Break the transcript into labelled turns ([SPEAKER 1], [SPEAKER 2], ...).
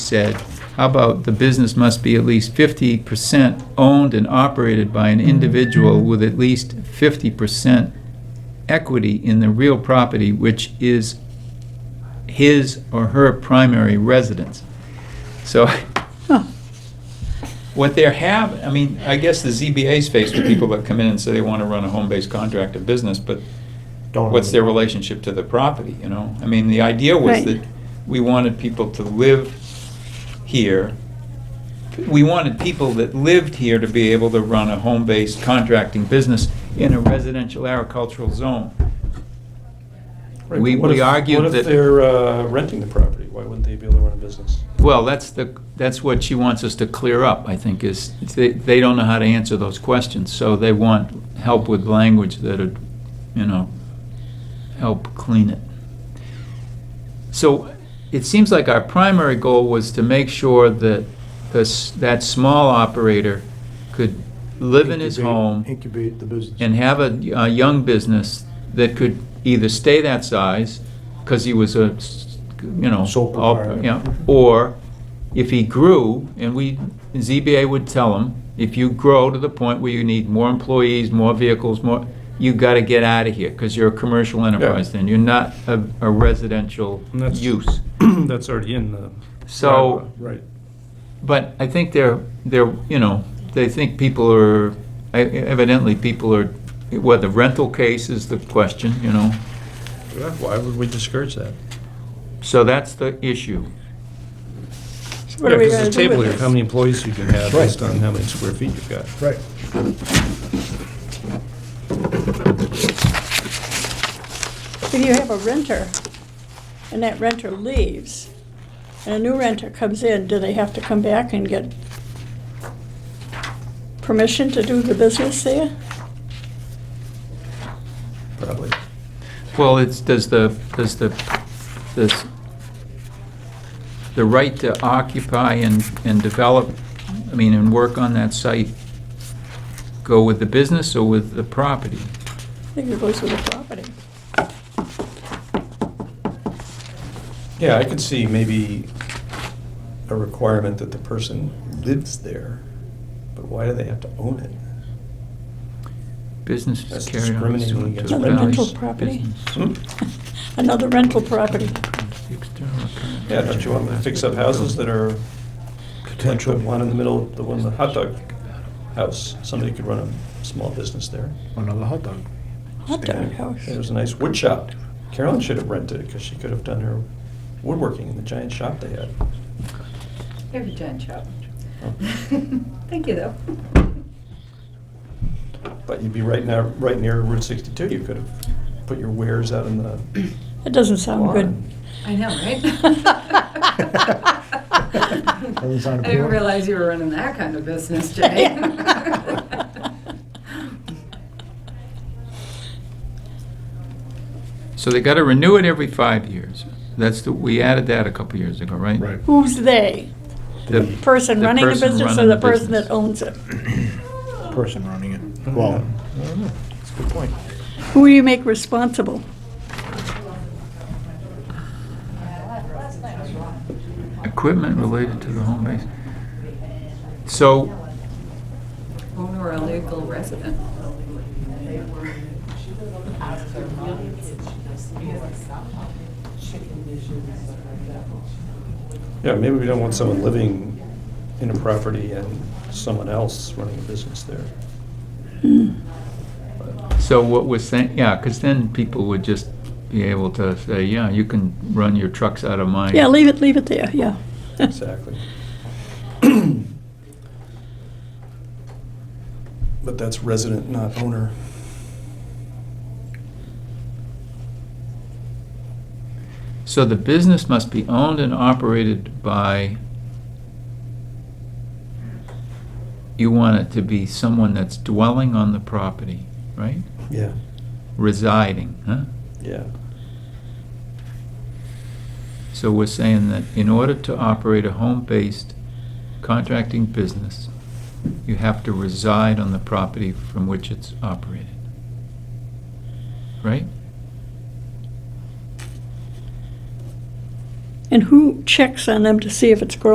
[SPEAKER 1] said, how about the business must be at least fifty percent owned and operated by an individual with at least fifty percent equity in the real property which is his or her primary residence. So, what they're having, I mean, I guess the ZBA's faced with people that come in and say they want to run a home-based contract of business, but
[SPEAKER 2] Don't
[SPEAKER 1] what's
[SPEAKER 2] really-
[SPEAKER 1] their relationship to the property, you know? I mean, the idea was
[SPEAKER 3] Right.
[SPEAKER 1] that we wanted people to live here. We wanted people that lived here to be able to run a home-based contracting business in a residential agricultural zone.
[SPEAKER 2] Right,
[SPEAKER 1] we-
[SPEAKER 2] but what
[SPEAKER 1] we
[SPEAKER 2] if-
[SPEAKER 1] argued
[SPEAKER 2] What
[SPEAKER 1] that-
[SPEAKER 2] if they're uh, renting the property? Why wouldn't they be able to run a business?
[SPEAKER 1] Well, that's the, that's what she wants us to clear up, I think, is they, they don't know how to answer those questions, so they want help with language that'd, you know, help clean it. So it seems like our primary goal was to make sure that this, that small operator could live in his
[SPEAKER 4] Incubate-
[SPEAKER 1] home
[SPEAKER 4] Incubate the business.
[SPEAKER 1] and have a, a young business that could either stay that size because he was a, s- you know,
[SPEAKER 4] Sole
[SPEAKER 1] all-
[SPEAKER 4] proprietor.
[SPEAKER 1] yeah, or if he grew, and we ZBA would tell him, if you grow to the point where you need more employees, more vehicles, more, you got to get out of here because you're a commercial enterprise. Then you're not a, a residential
[SPEAKER 2] And that's-
[SPEAKER 1] use.
[SPEAKER 2] That's already in the.
[SPEAKER 1] So-
[SPEAKER 2] Right.
[SPEAKER 1] But I think they're, they're, you know, they think people are, e, evidently people are, well, the rental case is the question, you know.
[SPEAKER 2] Yeah, Why would we discourage that?
[SPEAKER 1] So that's the issue.
[SPEAKER 3] So what are we
[SPEAKER 2] Yeah,
[SPEAKER 3] gonna
[SPEAKER 2] because
[SPEAKER 3] do
[SPEAKER 2] table
[SPEAKER 3] with
[SPEAKER 2] here,
[SPEAKER 3] this?
[SPEAKER 2] how many employees you can have
[SPEAKER 4] Right.
[SPEAKER 2] based on how many square feet you've got.
[SPEAKER 4] Right.
[SPEAKER 3] If you have a renter, and that renter leaves, and a new renter comes in, do they have to come back and get permission to do the business there?
[SPEAKER 2] Probably.
[SPEAKER 1] Well, it's, does the, does the, does the right to occupy and, and develop, I mean, and work on that site go with the business or with the property?
[SPEAKER 3] I think it goes with the property.
[SPEAKER 2] Yeah, I could see maybe a requirement that the person lives there, but why do they have to own it?
[SPEAKER 1] Business is
[SPEAKER 2] That's
[SPEAKER 1] carried on
[SPEAKER 2] discriminating
[SPEAKER 1] pursuant to
[SPEAKER 2] against
[SPEAKER 1] the
[SPEAKER 3] Another
[SPEAKER 1] values
[SPEAKER 3] rental
[SPEAKER 1] of
[SPEAKER 3] property.
[SPEAKER 1] business.
[SPEAKER 2] Hmm?
[SPEAKER 3] Another rental property.
[SPEAKER 1] External contract.
[SPEAKER 2] Yeah, don't you want to fix up houses that are like the
[SPEAKER 4] Potential.
[SPEAKER 2] one in the middle, the one, the hot dog house? Somebody could run a small business there.
[SPEAKER 4] Another hot dog.
[SPEAKER 3] Hot dog house.
[SPEAKER 2] There was a nice wood shop. Carolyn should have rented it because she could have done her woodworking in the giant shop they had.
[SPEAKER 5] You're a giant child.
[SPEAKER 2] Oh.
[SPEAKER 5] Thank you, though.
[SPEAKER 2] But you'd be right now, right near Route 62. You could have put your wares out in the
[SPEAKER 3] That doesn't sound good.
[SPEAKER 2] lawn.
[SPEAKER 5] I know, right?
[SPEAKER 4] Doesn't sound
[SPEAKER 5] I didn't
[SPEAKER 4] appealing.
[SPEAKER 5] realize you were running that kind of business, Jay.
[SPEAKER 1] So they gotta renew it every five years. That's the, we added that a couple years ago, right?
[SPEAKER 4] Right.
[SPEAKER 3] Who's "they"?
[SPEAKER 1] The
[SPEAKER 3] Person
[SPEAKER 1] The
[SPEAKER 3] running the
[SPEAKER 1] person
[SPEAKER 3] business or
[SPEAKER 1] running
[SPEAKER 3] the
[SPEAKER 1] the
[SPEAKER 3] person
[SPEAKER 1] business.
[SPEAKER 3] that owns it?
[SPEAKER 4] Person running it. Well,
[SPEAKER 2] That's a good point.
[SPEAKER 3] Who do you make responsible?
[SPEAKER 1] equipment related to the home base. So,
[SPEAKER 5] Owner or legal resident.
[SPEAKER 2] Yeah, maybe we don't want someone living in a property and someone else running a business there.
[SPEAKER 1] so what we're saying, yeah, because then people would just be able to say, yeah, you can run your trucks out of mine.
[SPEAKER 3] Yeah, leave it, leave it there, yeah.
[SPEAKER 2] Exactly. But that's resident, not owner.
[SPEAKER 1] So the business must be owned and operated by, you want it to be someone that's dwelling on the property, right?
[SPEAKER 2] Yeah,
[SPEAKER 1] Residing, huh?
[SPEAKER 2] yeah.
[SPEAKER 1] So we're saying that in order to operate a home-based contracting business, you have to reside on the property from which it's operated. Right?
[SPEAKER 3] And who checks on them to see if it's growing